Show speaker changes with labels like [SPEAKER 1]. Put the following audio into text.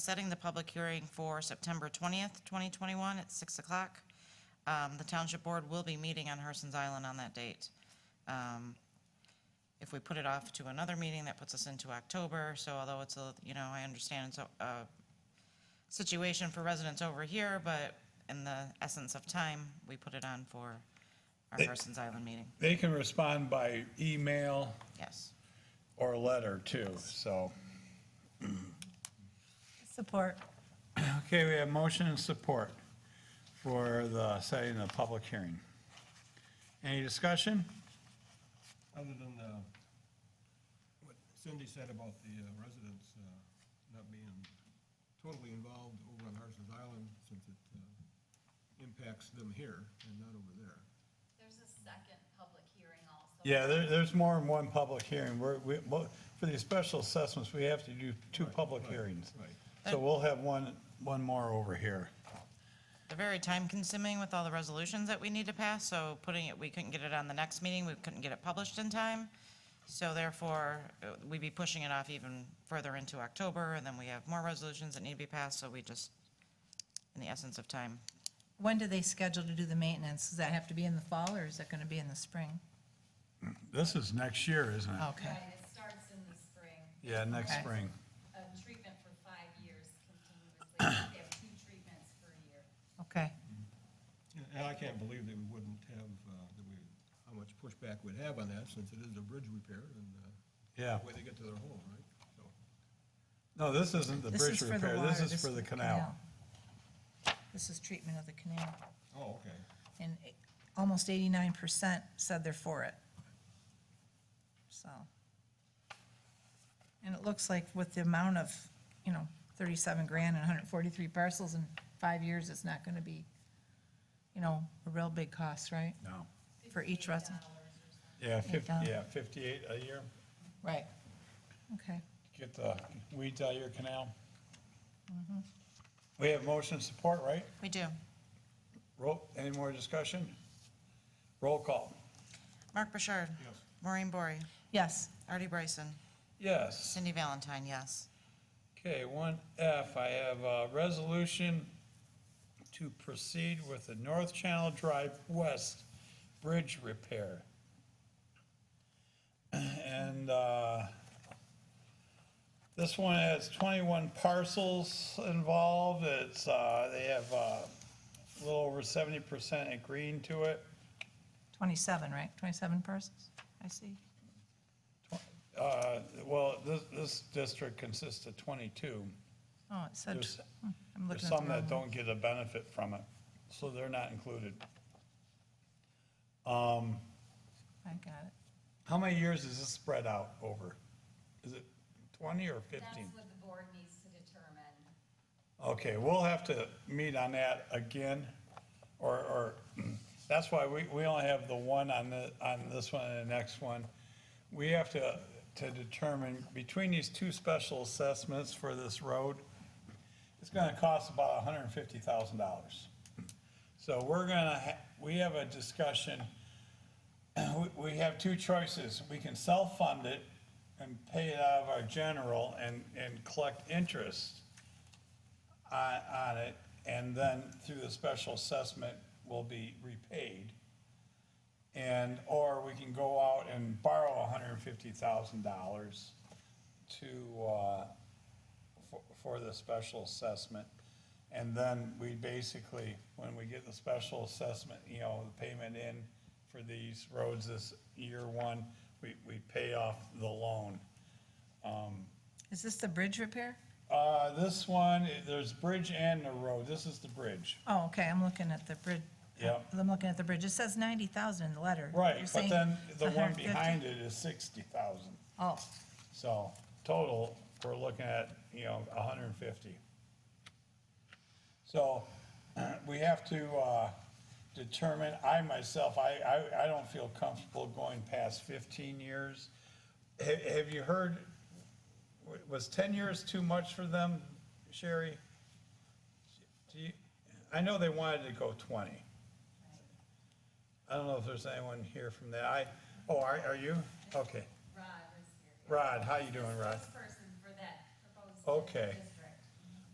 [SPEAKER 1] setting the public hearing for September 20th, 2021 at 6 o'clock. Um, The Township Board will be meeting on Herson's Island on that date. Um, If we put it off to another meeting, that puts us into October, so although it's a, you know, I understand it's a- a situation for residents over here, but in the essence of time, we put it on for our Herson's Island meeting,
[SPEAKER 2] They can respond by email
[SPEAKER 1] yes.
[SPEAKER 2] or letter too, so.
[SPEAKER 3] Support.
[SPEAKER 2] Okay, we have motion and support for the setting of the public hearing. Any discussion?
[SPEAKER 4] Other than uh, what Cindy said about the uh, residents uh, not being totally involved over on Harson's Island since it uh, impacts them here and not over there.
[SPEAKER 5] There's a second public hearing also.
[SPEAKER 2] Yeah, there, there's more than one public hearing. We're, we, well, for these special assessments, we have to do two public hearings.
[SPEAKER 4] right.
[SPEAKER 2] So we'll have one, one more over here.
[SPEAKER 1] They're very time consuming with all the resolutions that we need to pass, so putting it, we couldn't get it on the next meeting, we couldn't get it published in time. So therefore, uh, we'd be pushing it off even further into October, and then we have more resolutions that need to be passed, so we just, in the essence of time,
[SPEAKER 3] When do they schedule to do the maintenance? Does that have to be in the fall or is that going to be in the spring?
[SPEAKER 2] This is next year, isn't it?
[SPEAKER 3] Okay.
[SPEAKER 5] Right, it starts in the spring,
[SPEAKER 2] Yeah, next
[SPEAKER 3] Oh, Okay.
[SPEAKER 2] spring.
[SPEAKER 5] a treatment for five years continuously. They have two treatments per year.
[SPEAKER 3] Okay.
[SPEAKER 4] Yeah, And I can't believe that we wouldn't have, uh, that we, how much pushback we'd have on that since it is a bridge repair and uh,
[SPEAKER 2] Yeah.
[SPEAKER 4] the way they get to their home, right? So,
[SPEAKER 2] No, this isn't the
[SPEAKER 3] This is
[SPEAKER 2] bridge
[SPEAKER 3] for the
[SPEAKER 2] repair.
[SPEAKER 3] water,
[SPEAKER 2] This is for the canal.
[SPEAKER 3] This is treatment of the canal.
[SPEAKER 4] oh, okay.
[SPEAKER 3] And it- almost 89% said they're for it. So. And it looks like with the amount of, you know, 37 grand and 143 parcels in five years, it's not going to be, you know, a real big cost, right?
[SPEAKER 2] No.
[SPEAKER 3] For each resident.
[SPEAKER 2] Yeah, fifty,
[SPEAKER 3] Yeah.
[SPEAKER 2] yeah, fifty-eight a year.
[SPEAKER 3] Right. Okay.
[SPEAKER 2] Get the weeds out of your canal. We have motion support, right?
[SPEAKER 1] we do.
[SPEAKER 2] Roll, any more discussion? Roll call.
[SPEAKER 1] Mark Bouchard.
[SPEAKER 4] Yes.
[SPEAKER 1] Maureen Bory.
[SPEAKER 3] Yes.
[SPEAKER 1] Artie Bryson.
[SPEAKER 2] Yes.
[SPEAKER 1] Cindy Valentine, yes.
[SPEAKER 2] Okay, one F, I have a resolution to proceed with the North Channel Drive West Bridge repair. And, uh, this one has twenty-one parcels involved, it's, uh, they have, uh, a little over seventy percent agreeing to it.
[SPEAKER 3] 27, right? 27 parcels, I see.
[SPEAKER 2] Uh, well, this, this district consists of twenty-two.
[SPEAKER 3] Oh, it said,
[SPEAKER 2] There's-
[SPEAKER 3] hmm, I'm
[SPEAKER 2] There's
[SPEAKER 3] looking at the
[SPEAKER 2] some that
[SPEAKER 3] wrong one.
[SPEAKER 2] don't get a benefit from it, so they're not included.
[SPEAKER 3] I got it.
[SPEAKER 2] How many years is this spread out over? Is it twenty or
[SPEAKER 5] That's
[SPEAKER 2] fifteen?
[SPEAKER 5] what the board needs to determine.
[SPEAKER 2] Okay, we'll have to meet on that again, or, or, that's why we, we only have the one on the, on this one and the next one. We have to, to determine between these two special assessments for this road, it's gonna cost about hundred and fifty thousand dollars. So we're gonna, ha- we have a discussion, we- we have two choices. We can self-fund it and pay it out of our general and, and collect interest on, uh, on it, and then through the special assessment will be repaid. And, or we can go out and borrow hundred and fifty thousand dollars to, uh, for, for the special assessment. And then we basically, when we get the special assessment, you know, the payment in for these roads this year one, we, we pay off the loan.
[SPEAKER 3] Is this the bridge repair?
[SPEAKER 2] Uh, this one, there's bridge and the road. This is the bridge.
[SPEAKER 3] Oh, okay, I'm looking at the bridge.
[SPEAKER 2] Yeah.
[SPEAKER 3] I'm looking at the bridge. It says 90,000 in the letter. You're
[SPEAKER 2] Right, but
[SPEAKER 3] saying
[SPEAKER 2] then the
[SPEAKER 3] it's
[SPEAKER 2] one
[SPEAKER 3] 150?
[SPEAKER 2] behind it is sixty thousand,
[SPEAKER 3] Oh,
[SPEAKER 2] so total, we're looking at, you know, a hundred and fifty. So, we have to, uh, determine, I myself, I, I, I don't feel comfortable going past fifteen years. Have, have you heard, wa- was ten years too much for them, Sherry? Do you, I know they wanted to go twenty. I don't know if there's anyone here from that. I, oh, are, are you? Okay.
[SPEAKER 5] Rod is here.
[SPEAKER 2] Rod, how you doing, Rod?
[SPEAKER 5] First person for that proposed.
[SPEAKER 2] Okay.
[SPEAKER 5] This